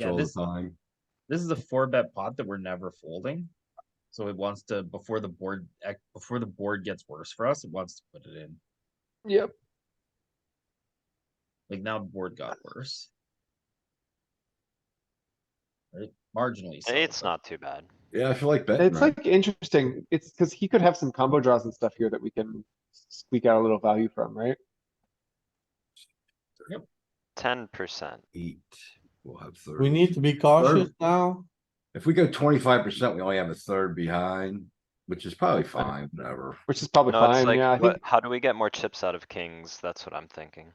Yeah, all the this, time. this is a four bet pot that we're never folding. So it wants to, before the board, ec- before the board gets worse for us, it wants to put it in. Yep. Like now the board got worse. Right, marginally. so, It's but not too bad. Yeah, I feel like betting. It's right? like interesting. It's because he could have some combo draws and stuff here that we can squeak out a little value from, right? Ten percent. eight. We'll have third. We need to be cautious now. If we go twenty-five percent, we only have a third behind, which is probably fine, whatever. Which is probably No, it's fine. Yeah, I like, think what, how do we get more chips out of kings? That's what I'm thinking.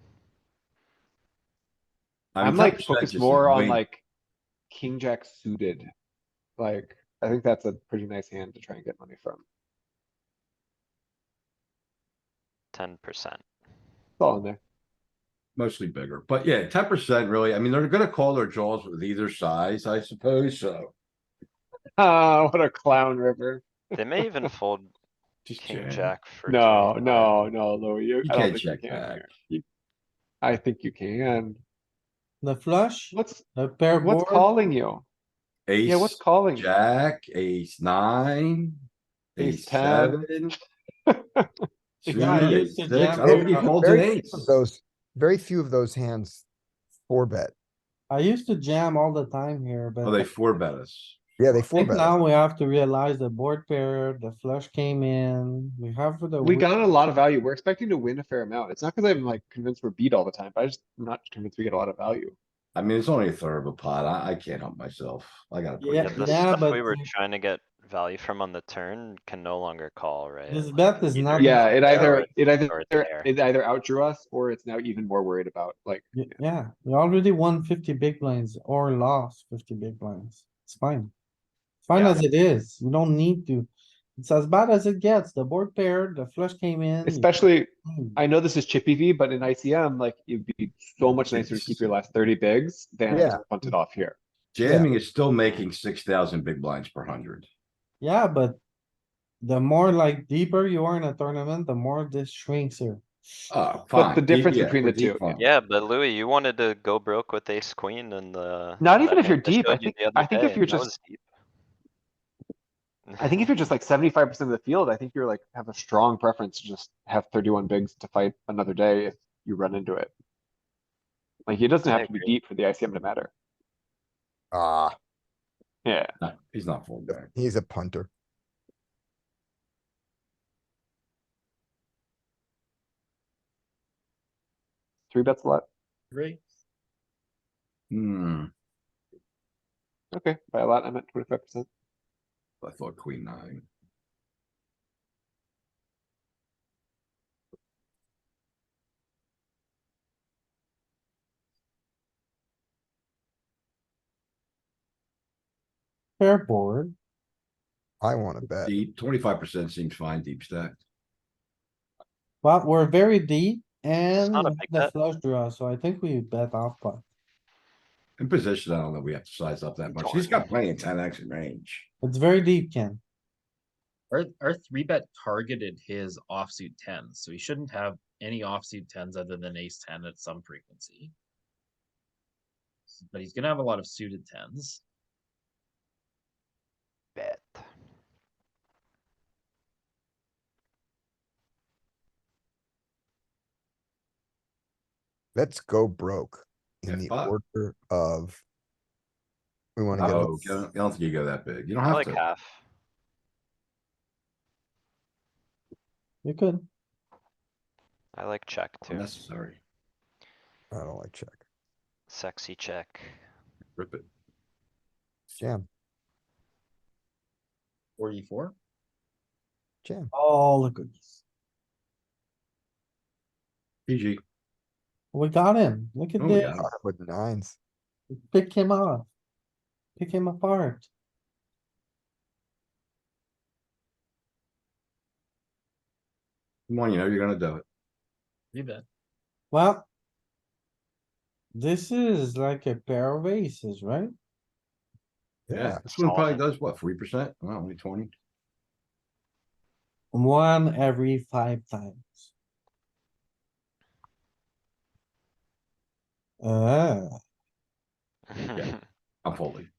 I mean, I'm like 10% focused just more on way- like king jack suited. Like, I think that's a pretty nice hand to try and get money from. Ten percent. It's all in there. Mostly bigger, but yeah, ten percent really. I mean, they're gonna call their draws with either size, I suppose, so. Ah, what a clown river. They may even fold Just king jam. jack for. No, 25. no, no, Louis, you. You I don't can't think you check can back. here. You- I think you can. The flush, What's, the pair what's board, calling you? Yeah, what's Ace, calling? you? jack, ace nine, Ace ace 10. seven. suited, Yeah, I ace used to six. jam I don't think he it. folds an Very few ace. of those, very few of those hands four bet. I used to jam all the time here, but. Oh, they four bet us. Yeah, they I four think bet. Now we have to realize the board pair, the flush came in, we have for the. We win. got a lot of value. We're expecting to win a fair amount. It's not because I'm like convinced we're beat all the time, but I just I'm not convinced we get a lot of value. I mean, it's only a third of a pot. I, I can't help myself. I gotta. put it Yeah, Yeah, in. the yeah, stuff but we were the- trying to get value from on the turn can no longer call, right? This Like, bet is either not- it's Yeah, it there or either, it's- it either, or it's there. it either outdrew us or it's now even more worried about like, Y- Yeah, we already won fifty big blinds or lost fifty big blinds. It's fine. It's Fine Yeah. as it is. You don't need to. It's as bad as it gets. The board pair, the flush came in. you- especially, Hmm. I know this is chippy V, but in ICM, like it'd be so much nicer to keep your last thirty bigs than Yeah. just punt it off here. Jamming is still making six thousand big blinds per hundred. Yeah, but the more like deeper you are in a tournament, the more this shrinks here. Oh, fine. What's the Deep- difference yeah, between we're the two? deep fine. Yeah, but Louis, you wanted to go broke with ace queen and the. Not that even if hand you're I deep, I showed you think- the other I think if day, you're that just- was deep. I think if you're just like seventy-five percent of the field, I think you're like, have a strong preference to just have thirty-one bigs to fight another day if you run into it. Like, it doesn't I have to be agree. deep for the ICM to matter. Ah, Yeah, No, He's not folding back. he's a punter. three bets a lot. Agree. Hmm, Okay, by a lot, I meant twenty-five percent. I thought queen nine. Pair board, I wanna bet. Deep, twenty-five percent seems fine, deep stacked. but we're very deep and not a we big have the bet. flush draw, so I think we bet off pot. In position, I don't know, we have to size up that much. He's got plenty of ten X in range. It's very deep, Ken. Our, our three bet targeted his offsuit tens, so he shouldn't have any offsuit tens other than ace ten at some frequency. But he's gonna have a lot of suited tens. Bet. Let's go broke in Yeah, the fuck. order of. We wanna get, Oh, I don't I don't think you go that big. You don't I have like to. half. You could. I like check Oh, too. Necessary. I don't like check. Sexy check. Rip it. Jam, Forty-four? jam. All the goodies. PG. We got him. Look at Oh, we this. got him. With nines. Pick him off. Pick him apart. Come on, you know, you're gonna do it. Three bet. Well. This is like a pair of aces, right? Yeah, Yeah, this one probably solid. does what, forty percent? Well, only twenty. One every five times. Ah. Uh, I'm folding.